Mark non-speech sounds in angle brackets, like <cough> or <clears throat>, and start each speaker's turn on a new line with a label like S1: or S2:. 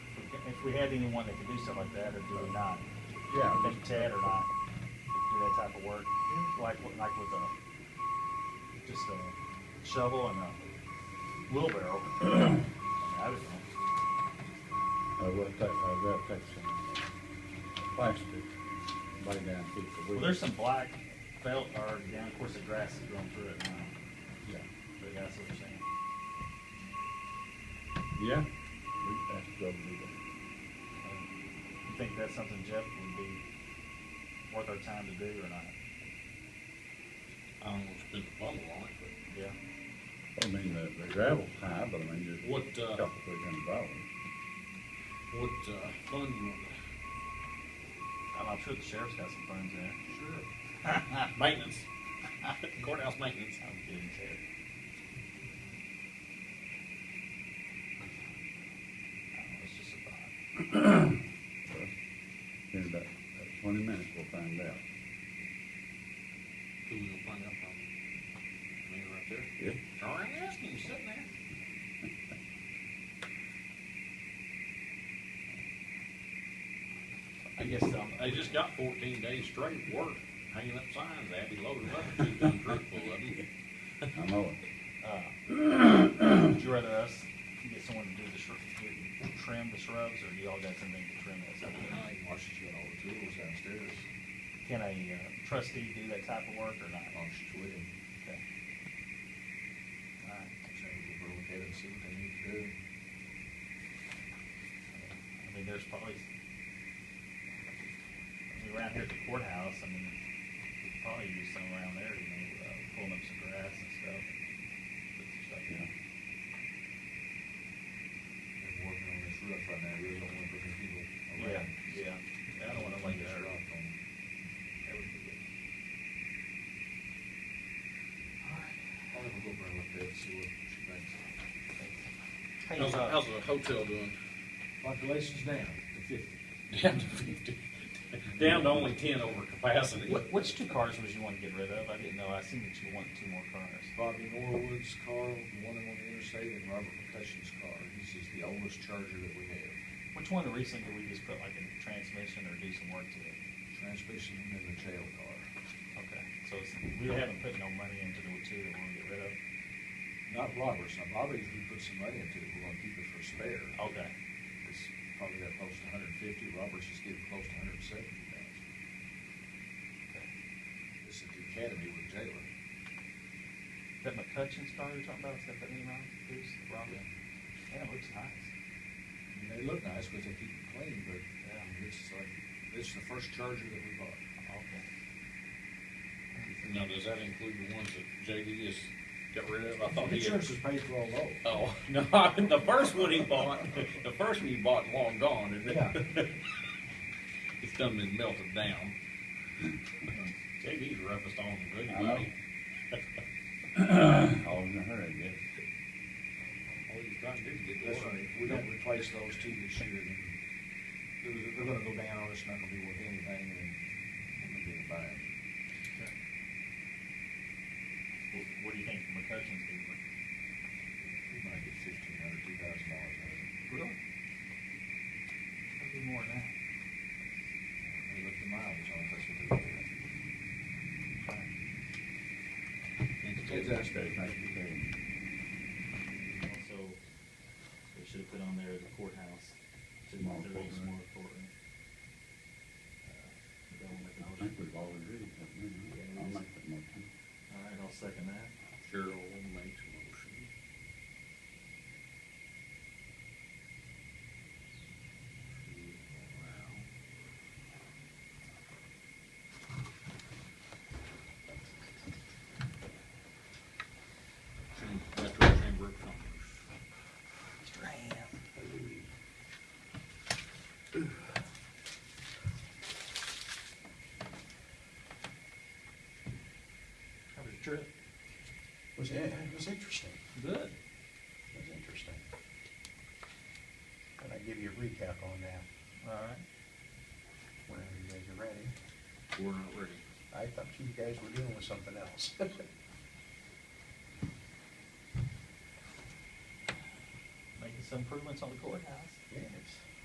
S1: if we had anyone that could do something like that, or do it not,
S2: Yeah.
S1: I think Ted or not, do that type of work, like, with- like with a, just a shovel and a wheelbarrow. <clears throat> I mean, I don't know.
S2: I will take, I will take some plastic, lay down, keep the.
S1: Well, there's some black felt, or, yeah, of course, the grass is growing through it now,
S2: Yeah.
S1: but yeah, that's what you're saying.
S2: Yeah. We, that's probably the,
S1: Um, You think that's something Jeff would be worth our time to do or not?
S3: I don't want to spend the bubble on it, but
S1: Yeah.
S2: I mean, the, the gravel's high, but I mean, just.
S3: What, uh,
S2: a Couple three hundred dollars.
S3: what, uh, fund you want to?
S1: I'm, I'm sure the sheriff's got some funds there.
S3: Sure. Maintenance. <laughs> Courthouse maintenance.
S1: I'm kidding, Ted. I don't know, it's just a thought.
S2: Well, In about about twenty minutes, we'll find out.
S3: Who we gonna find out from? Me right there?
S2: Yeah.
S3: Turn around and ask him, he's sitting there. I guess, um, they just got fourteen days straight work, hanging up signs, Abby loaded up, two ton truck full of <laughs> them.
S2: I know it.
S1: Uh, <clears throat> Would you rather us get someone to do the shrub, trim the shrubs, or you all got something to trim this up?
S3: I think Marcia's got all the tools downstairs,
S1: Can a uh, trustee do that type of work or not?
S3: Marcia's with him.
S1: Okay. All right.
S3: So we'll look at it and see what they need to do.
S1: I mean, there's probably, I mean, around here at the courthouse, I mean, we could probably use some around there, you know, uh, pulling up some grass and stuff. Put some stuff in.
S3: They're working on this roof right now, really don't want to bring people
S1: Yeah,
S3: around.
S1: yeah, yeah, I don't wanna like that.
S3: Rock on. That would be good. I'll have a go around with that, and see what she thinks. How's, how's the hotel doing?
S4: Population's down to fifty.
S3: Down to fifty, down to only ten over capacity.
S1: What, which two cars was you wanting to get rid of? I didn't know, I seen that you want two more cars.
S4: Bobby Norwood's car, the one on the interstate, and Robert McCutcheon's car. He's just the oldest charger that we have.
S1: Which one recently did we just put like a transmission or do some work to it?
S4: Transmission and the jail car.
S1: Okay, so it's, we haven't put no money into the two that we wanna get rid of?
S4: Not Robert's. Now Bobby's, we put some money into it. We're gonna keep it for spare.
S1: Okay,
S4: It's probably got close to hundred and fifty. Robert's is getting close to hundred and seventy thousand.
S1: okay.
S4: It's at the academy with Jalen.
S1: That McCutcheon's car you're talking about, it's got that name on it, Bruce, Robert? Yeah, it looks nice.
S4: I mean, they look nice, but they keep it clean, but, um, it's like, this is the first charger that we bought.
S1: Okay.
S3: Now, does that include the ones that JD just got rid of? I thought he had.
S4: Insurance is paid for all those.
S3: Oh, <laughs> no, the first one he bought, the first one he bought long gone, isn't
S4: Yeah.
S3: <laughs> it? It's done been melted <laughs> down. JD's roughest on the good.
S2: I know. <clears throat> All in a hurry, I guess.
S3: All he's trying to do is get the
S4: That's
S3: water.
S4: right, we don't replace those two this year, then they're, they're gonna go down, it's not gonna be worth anything, and we're gonna be in a bind.
S1: What, what do you think McCutcheon's gonna be?
S4: We might get fifteen hundred, two thousand dollars out of it.
S1: Really? That'd be more than that.
S4: We look the mileage on it, that's what they're looking at.
S2: Okay, thank you very much.
S1: Also, they should have put on there the courthouse. to
S2: Small
S1: the very
S2: courtroom.
S1: small courtroom. Uh, that one
S2: I
S1: with
S2: think we've already read that, haven't we? I'll make that motion.
S1: the- All right, I'll second that.
S3: Cheryl makes a motion. Wow. Metro Chamber of Commerce.
S1: How was your trip?
S5: was, it was interesting,
S1: Good.
S5: it was interesting. But I give you a recap on that,
S1: All right.
S5: whenever you guys are ready.
S3: We're not ready.
S5: I thought you guys were dealing with something else. <laughs>
S1: Making some improvements on the courthouse.
S5: Yes.